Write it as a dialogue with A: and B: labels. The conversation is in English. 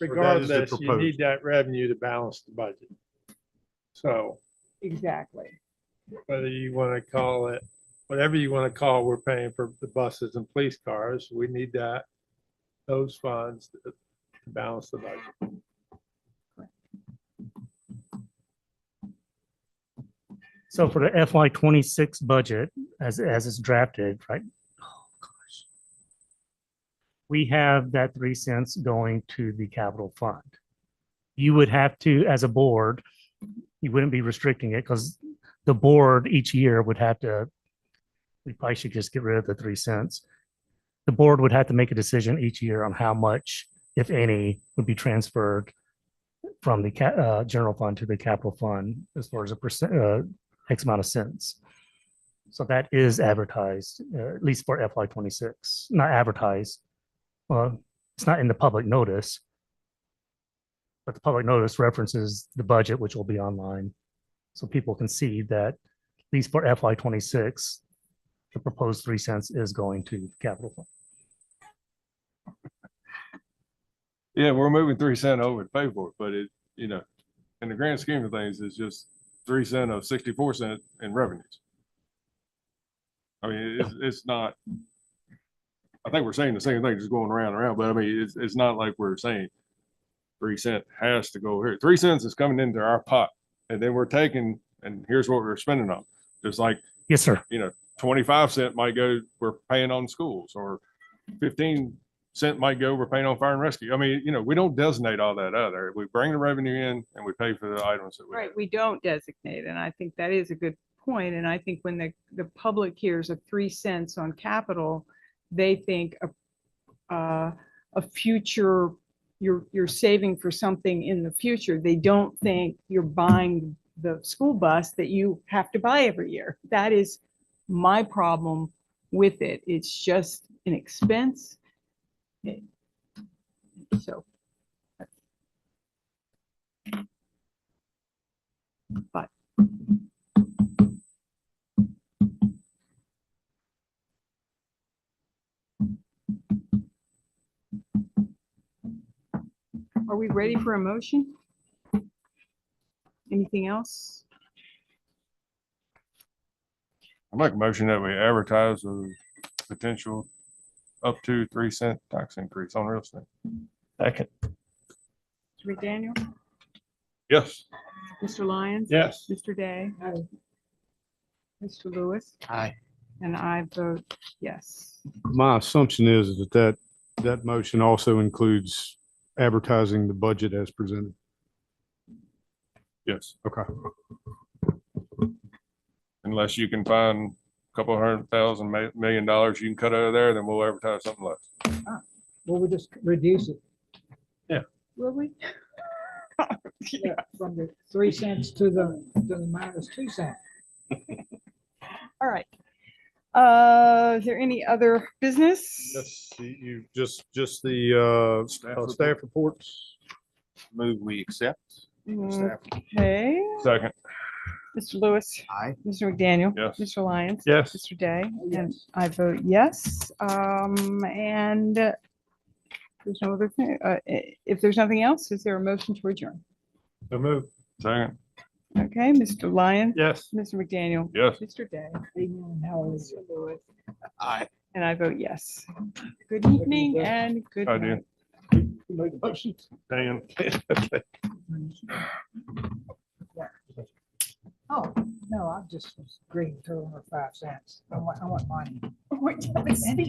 A: regardless, you
B: proposed.
A: need that revenue to balance the budget. So
C: Exactly.
A: whether you want to call it, whatever you want to call, we're paying for the buses and police cars. We need that, those funds to to balance the budget.
D: So for the FY twenty-six budget, as, as it's drafted, right? Oh gosh, We have that three cents going to the capital fund. You would have to, as a board, you wouldn't be restricting it because the board each year would have to, we probably should just get rid of the three cents. The board would have to make a decision each year on how much, if any, would be transferred from the ca- uh, general fund to the capital fund as far as a percent, uh, X amount of cents. So that is advertised, uh, at least for FY twenty-six, not advertised. Well, it's not in the public notice. But the public notice references the budget, which will be online. So people can see that, at least for FY twenty-six, the proposed three cents is going to the capital fund.
B: Yeah, we're moving three cent over to pay for it, but it, you know, in the grand scheme of things, it's just three cent of sixty-four cent in revenues. I mean, it's, it's not, I think we're saying the same thing, just going around and around, but I mean, it's, it's not like we're saying three cent has to go here. Three cents is coming into our pot and then we're taking, and here's what we're spending on. Just like
D: Yes, sir.
B: twenty-five cent might go, we're paying on schools, or fifteen cent might go, we're paying on fire and rescue. I mean, you know, we don't designate all that other. We bring the revenue in and we pay for the items that we.
C: Right, we don't designate, and I think that is a good point, and I think when the, the public hears of three cents on capital, they think a, uh, a future, you're, you're saving for something in the future. They don't think you're buying the school bus that you have to buy every year. That is my problem with it. It's just an expense. It- So. Are we ready for a motion? Anything else?
B: I make a motion that we advertise a potential up to three cent tax increase on real estate.
E: Second.
C: Mr. McDaniel,
B: Yes.
C: Mr. Lyons?
A: Yes.
C: Mr. Day? Mr. Lewis?
E: Aye.
C: And I vote yes.
F: My assumption is that that, that motion also includes advertising the budget as presented.
B: Yes.
F: Okay.
B: Unless you can find a couple hundred thousand, ma- million dollars you can cut out of there, then we'll advertise something less.
G: Well, we just reduce it
C: Will we?
G: yeah, from the three cents to the, to the minus two cents.
C: All right. Uh, is there any other business?
F: Yes, you, just, just the, uh,
B: Staff
F: staff reports.
E: Move we accept.
C: Okay,
B: Second,
C: Mr. Lewis?
E: Aye.
C: Mr. McDaniel?
B: Yes.
C: Mr. Lyons?
B: yes.
C: Mr. Day? And
G: Yes.
C: I vote yes, um, and uh, there's no other thing, uh, i- if there's nothing else, is there a motion to adjourn?
A: So move.
B: Second,
C: Okay, Mr. Lyon,
A: Yes.
C: Mr. McDaniel,
B: yes.
C: Mr. Day,
G: Amen. Hallelujah.
E: Aye.
C: and I vote yes. Good evening
G: Good evening.
C: and good
B: I do.
C: night.
G: Make a motion.
B: Dan.
G: Oh, no, I'm just agreeing to her five cents. I want, I want mine.